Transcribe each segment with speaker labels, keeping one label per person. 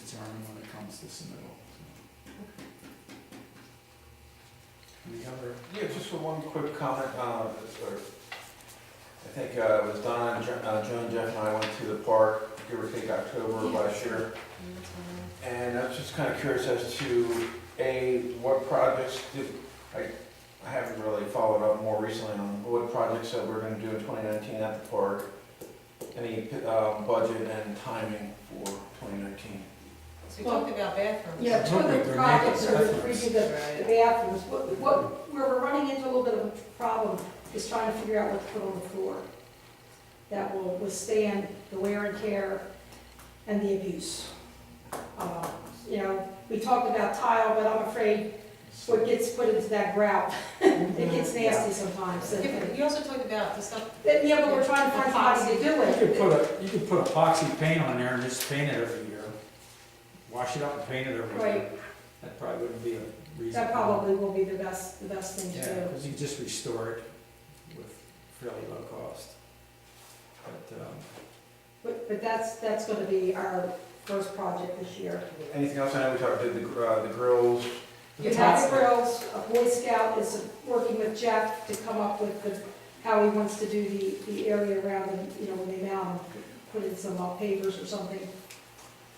Speaker 1: firm when it comes to submittal. Any other,
Speaker 2: Yeah, just for one quick comment, uh, or, I think, uh, it was Donna and Jo- uh, Joan, Jeff and I went to the park, give or take October of last year. And I was just kinda curious as to, A, what projects did, I, I haven't really followed up more recently on what projects that we're gonna do in twenty nineteen at the park. Any, um, budget and timing for twenty nineteen?
Speaker 3: So we talked about bathrooms.
Speaker 4: Yeah, two of the
Speaker 1: They're
Speaker 4: projects are
Speaker 1: making
Speaker 4: free to the the
Speaker 3: Right.
Speaker 4: bathrooms, what, what, where we're running into a little bit of a problem is trying to figure out what to put on the floor that will withstand the wear and tear and the abuse. Uh, You know, we talked about tile, but I'm afraid what gets put into that grout, it gets
Speaker 1: Mm-hmm.
Speaker 4: nasty sometimes. so-
Speaker 3: Yeah, but You also talked about the stuff,
Speaker 4: Then, yeah, but we're trying to find somebody to do
Speaker 1: you could put
Speaker 4: it.
Speaker 1: a, you could put epoxy paint on there and just paint it every year. Wash it up and paint it every year.
Speaker 4: Right,
Speaker 1: That probably wouldn't be a reason.
Speaker 4: that probably will be the best, the best thing to
Speaker 1: Yeah,
Speaker 4: do.
Speaker 1: because you just restore it with fairly low cost. But, um,
Speaker 4: But, but that's, that's gonna be our first project this year.
Speaker 2: Anything else? I know we talked, did the, gr- uh, the grills,
Speaker 4: You have the girls, a Boy Scout is working with Jeff to come up with the, how he wants to do the, the area around, and, you know, when they mount them, put in some uh, pavers or something.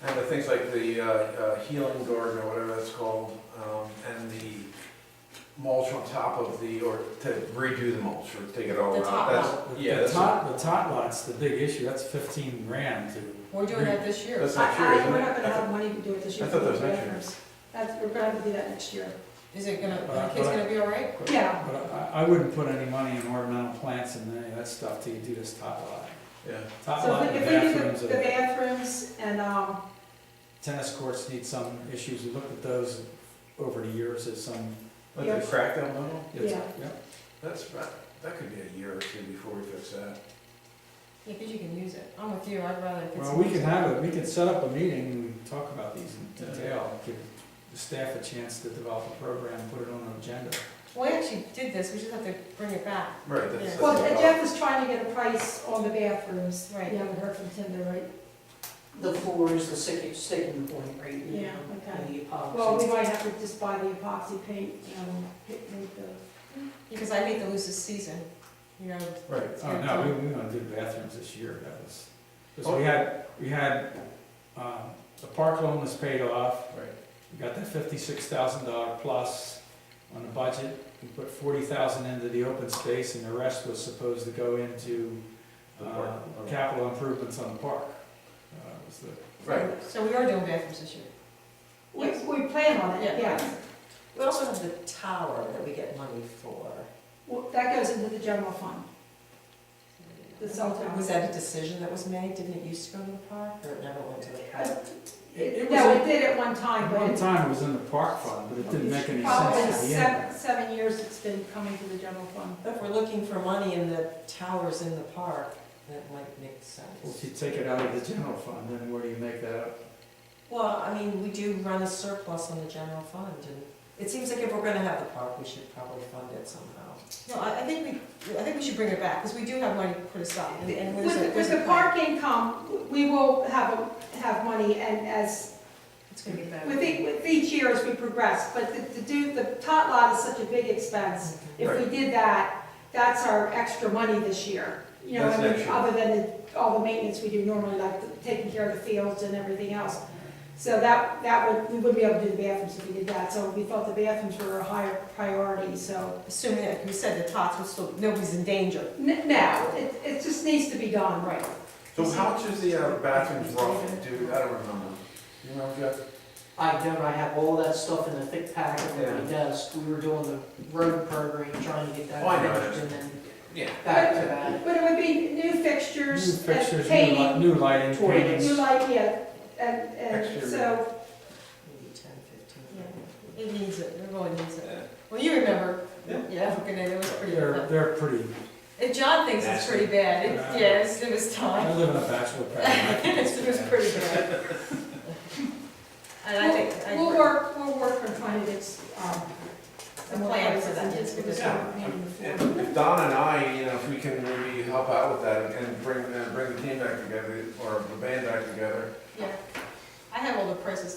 Speaker 2: And the things like the uh, uh, healing garden or whatever that's called, um, and the mulch on top of the, or to redo the mulch or take it all
Speaker 3: The
Speaker 2: out.
Speaker 3: top
Speaker 2: That's-
Speaker 1: the-
Speaker 2: Yeah,
Speaker 1: The
Speaker 2: that's,
Speaker 1: tot, the tot lot's the big issue, that's fifteen grand to
Speaker 3: we're doing that this year.
Speaker 2: that's
Speaker 4: I,
Speaker 2: not true,
Speaker 4: I,
Speaker 2: isn't
Speaker 4: we're
Speaker 2: it?
Speaker 4: not gonna
Speaker 2: I
Speaker 4: have money to do it this
Speaker 2: I
Speaker 4: year.
Speaker 2: thought that was next year.
Speaker 4: That's, we're gonna have to do that next year.
Speaker 3: Is it gonna, are the kids gonna be all right?
Speaker 4: Yeah,
Speaker 1: But I, I wouldn't put any money in ornamental plants and any of that stuff till you do this top lot.
Speaker 2: thought- Yeah,
Speaker 1: Top
Speaker 4: so
Speaker 1: lot,
Speaker 4: if
Speaker 1: the
Speaker 4: we- if we do
Speaker 1: bathrooms,
Speaker 4: the- the
Speaker 1: the
Speaker 4: bathrooms and, um,
Speaker 1: tennis courts need some issues, we looked at those over the years as some.
Speaker 2: like
Speaker 4: Yeah.
Speaker 2: the crack down level,
Speaker 1: it's-
Speaker 4: Yeah.
Speaker 2: that's, right. that could be a year or two before we fix that.
Speaker 3: Yeah, because you can use it. I'm with you, I'd rather. if it's-
Speaker 1: Well, we can have it, we can set up a meeting and talk about these in detail, give the staff a chance to develop a program, put it on an agenda.
Speaker 3: Well, we actually did this, we just have to bring it back.
Speaker 2: Right, that's.
Speaker 3: Yeah.
Speaker 4: well, uh,
Speaker 2: that's-
Speaker 4: Jeff was trying to get a price on the bathrooms.
Speaker 3: Right.
Speaker 4: You haven't heard from Tim, there, right?
Speaker 5: The floor is the sticking, sticking point right now.
Speaker 4: Yeah, okay.
Speaker 5: and the epoxy.
Speaker 4: Well, we might have to just buy the epoxy paint, you know, pick- make the.
Speaker 3: Because I hate to lose this season, you know.
Speaker 2: Right,
Speaker 3: it's
Speaker 1: Oh,
Speaker 3: gonna
Speaker 1: no,
Speaker 3: come.
Speaker 1: we, we don't do bathrooms this year, that was,
Speaker 2: Oh.
Speaker 1: because we had, we had, um, the park loan was paid off.
Speaker 2: right.
Speaker 1: We got that fifty-six thousand dollar plus on the budget. We put forty thousand into the open space and the rest was supposed to go into
Speaker 2: The
Speaker 1: uh,
Speaker 2: park.
Speaker 1: capital improvements on the park. Uh, was the-
Speaker 2: Right,
Speaker 3: So we are doing bathrooms this year.
Speaker 4: We, we plan on
Speaker 3: Yeah.
Speaker 4: it, yeah.
Speaker 5: We also have the tower that we get money for.
Speaker 4: Well, that goes into the general fund, the cell
Speaker 5: Was
Speaker 4: tower.
Speaker 5: that a decision that was made? Didn't it used to go to the park or it never went to the park?
Speaker 1: It- it
Speaker 4: No,
Speaker 1: was-
Speaker 4: it did at one time,
Speaker 1: At
Speaker 4: but.
Speaker 1: one
Speaker 4: it-
Speaker 1: time it was in the park fund, but it didn't make any
Speaker 4: Probably
Speaker 1: sense at the end.
Speaker 4: seven, seven years it's been coming to the general fund.
Speaker 5: If we're looking for money and the tower's in the park, that might make
Speaker 1: Well, If
Speaker 5: sense.
Speaker 1: you take it out of the general fund, then where do you make that up?
Speaker 5: Well, I mean, we do run a surplus on the general fund and it seems like if we're gonna have the park, we should probably fund it somehow.
Speaker 3: No, I, I think we, I think we should bring it back, because we do have money put aside. and- and there's
Speaker 4: With,
Speaker 3: a-
Speaker 4: the-
Speaker 3: there's
Speaker 4: with
Speaker 3: a
Speaker 4: the
Speaker 3: plan.
Speaker 4: park income, we will have, a- have money and as,
Speaker 3: It's gonna get better.
Speaker 4: with each, with each year as we progress, but to- to do, the tot lot is such a big expense. If we did that, that's our extra money this year. You know,
Speaker 2: That's
Speaker 4: I mean,
Speaker 2: extra.
Speaker 4: other than the- all the maintenance we do normally, like the- taking care of the fields and everything else. So that, that would, we wouldn't be able to do the bathrooms if we did that, so we thought the bathrooms were a higher priority, so.
Speaker 3: Assuming, that, like you said, the tots will still, nobody's in danger.
Speaker 4: N- No, it, it just needs to be done, right.
Speaker 2: so how much is the uh, bathrooms rough, dude, I don't remember. You remember, Jeff?
Speaker 6: I don't, I have all that stuff in a thick packet on
Speaker 2: Yeah.
Speaker 6: my desk, we were doing the road program, trying to get that
Speaker 2: Oh, I know.
Speaker 6: finished, and then
Speaker 2: Yeah.
Speaker 6: back to that.
Speaker 4: But it would be new
Speaker 1: New
Speaker 4: fixtures, and
Speaker 1: fixtures, new
Speaker 4: painting,
Speaker 1: light, new lighting,
Speaker 6: Toys.
Speaker 1: paintings.
Speaker 4: new light, yeah, and, and
Speaker 2: Exterior.
Speaker 4: so,
Speaker 5: Maybe ten, fifteen.
Speaker 3: It needs it, it really needs it.
Speaker 2: Yeah.
Speaker 3: Well, you remember,
Speaker 2: Yeah.
Speaker 3: yeah, African Day, that was pretty
Speaker 1: They're,
Speaker 3: bad.
Speaker 1: they're pretty,
Speaker 3: And John thinks it's pretty bad,
Speaker 1: Nasty.
Speaker 3: It- yeah, it's- it was
Speaker 1: I
Speaker 3: time.
Speaker 1: live in a bachelor pad.
Speaker 3: It was pretty bad. And I think, I
Speaker 4: we'll
Speaker 3: agree.
Speaker 4: work, we'll work on trying to get, um,
Speaker 3: A plan for that.
Speaker 4: Just give us
Speaker 2: Yeah.
Speaker 4: a plan in the form.
Speaker 2: And if Don and I, you know, if we can maybe help out with that and bring, uh, bring the team back together, or the band back together,
Speaker 3: yeah. I have all the prices